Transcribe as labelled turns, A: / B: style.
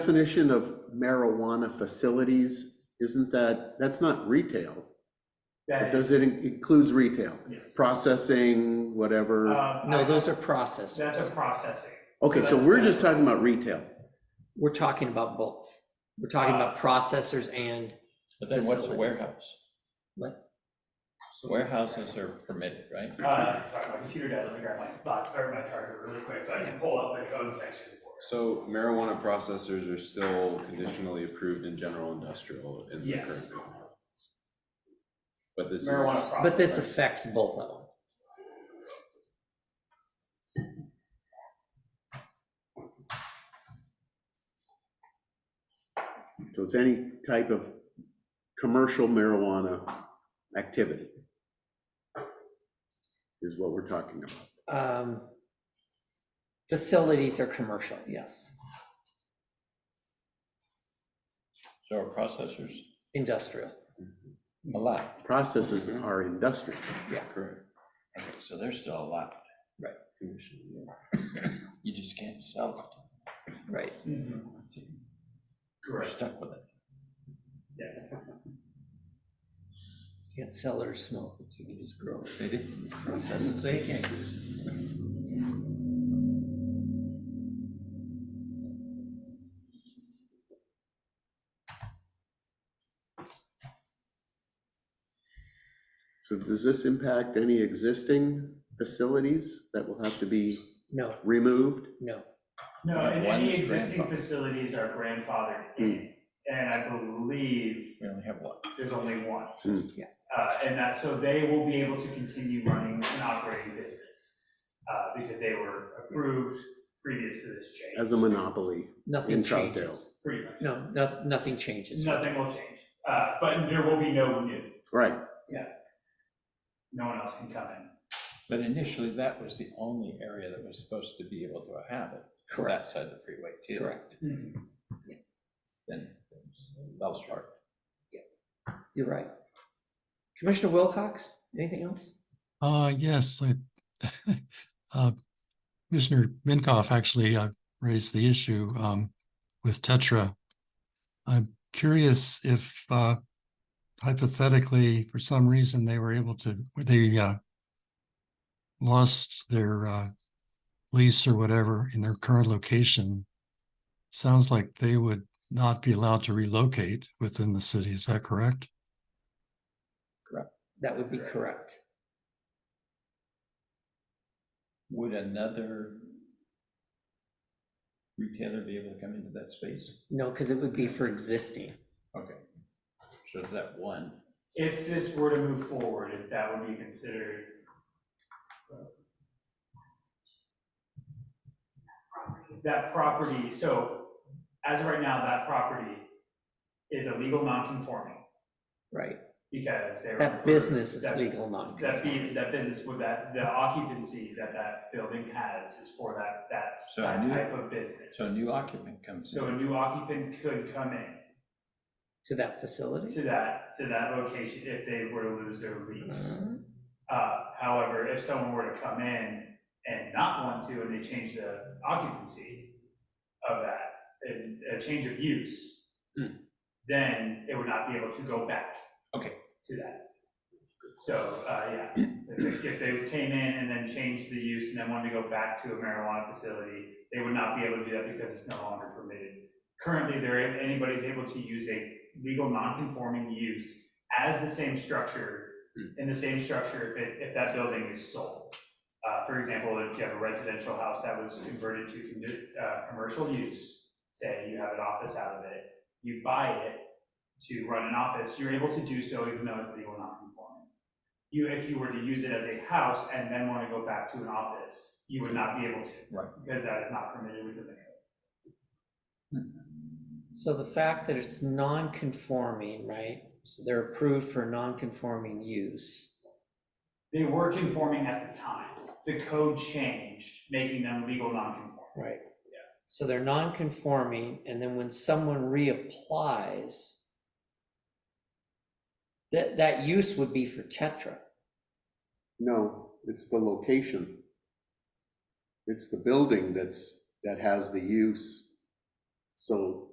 A: definition of marijuana facilities, isn't that, that's not retail?
B: That is,
A: Does it in- includes retail?
B: yes.
A: Processing, whatever?
B: Uh,
C: No,
B: I-
C: those are
B: That's a
C: processors.
B: processing.
A: Okay, so
B: that's-
A: we're just talking about retail.
C: We're talking about both. We're talking
B: Uh,
C: about processors and,
D: But then what's a
C: Facilities.
D: warehouse?
C: What?
D: Warehouses are permitted, right?
B: Uh, sorry, my computer died, let me grab my thought, or my charger really quick, so I can pull up the code section for it.
E: So marijuana processors are still conditionally approved in general industrial in the
B: Yes.
E: current bill? But this is.
B: Marijuana processor.
C: but this affects both of them.
A: So it's any type of commercial marijuana activity is what we're talking about.
C: Um, Facilities are commercial, yes.
D: So are processors
C: Industrial, Mm-hmm.
D: allowed?
A: Processes are industrial.
D: Correct. Okay, so they're still allowed.
C: Right.
D: You just can't sell
C: right.
B: Mhm.
D: it. We're
B: Correct,
D: stuck with it.
B: yes.
C: Can't sell it or smoke it, you can just grow it.
D: They didn't process it, so you can't use it.
A: So does this impact any existing facilities that will have to be
C: No,
A: removed?
C: no.
B: No,
D: Right,
B: and
D: one
B: any
D: is
B: existing
D: grandfathered.
B: facilities are grandfathered in, and I believe
D: We only have one.
B: there's only one.
A: Hmm.
C: Yeah.
B: Uh, and that, so they will be able to continue running an operating business, uh, because they were approved previous to this change,
A: As a monopoly,
C: Nothing
A: In Troutdale.
C: changes.
B: pretty much.
C: No, no- nothing changes.
B: Nothing will change, uh, but there will be no new,
A: right?
B: no one else can come in.
D: But initially, that was the only area that was supposed to be able to have it. was
C: Correct.
D: That side of the freeway too.
C: Correct.
D: Then that was hard.
C: You're right. Commissioner Wilcox, anything else?
F: Uh, yes, I, uh, Commissioner Minkoff actually, uh, raised the issue, um, with Tetra. I'm curious if, uh, hypothetically, for some reason, they were able to, they, uh, lost their, uh, lease or whatever in their current location. Sounds like they would not be allowed to relocate within the city. Is that correct?
C: That would be correct.
D: Would another retailer be able to come into that space?
C: No, because it would be for existing.
D: Okay. So is that one?
B: If this were to move forward, if that would be considered, that property, so as of right now, that property is a legal non-conforming
C: Right,
B: because they were.
C: that business is
B: that-
C: legal non
B: That be, that business with that, the occupancy that that building has is for that, that's
D: So
B: that
D: new-
B: type of business.
D: So a new occupant comes
B: So a
D: in,
B: new occupant could come in
C: to that facility.
B: to that, to that location if they were to lose their lease.
C: Uh,
B: Uh, however, if someone were to come in and not want to, and they change the occupancy of that, and a change of use,
D: Hmm.
B: then it would not be able to go back.
D: Okay.
B: To that. So, uh, yeah, if, if they came in and then changed the use and then wanted to go back to a marijuana facility, they would not be able to do that because it's no longer permitted. Currently, there, anybody's able to use a legal non-conforming use as the same structure, in the same structure if it, if that building is sold. Uh, for example, if you have a residential house that was converted to condi- uh, commercial use, say you have an office out of it, you buy it to run an office, you're able to do so even though it's legal non-conforming. You, if you were to use it as a house and then want to go back to an office, you would not be able to.
D: Right.
B: Because that is not permitted within the code.
C: So the fact that it's non-conforming, right, so they're approved for non-conforming use.
B: They were conforming at the time. The code changed, making them legal non-conforming.
C: Right. Yeah. So they're non-conforming, and then when someone reapplies, that, that use would be for Tetra.
A: No, it's the location. It's the building that's, that has the use So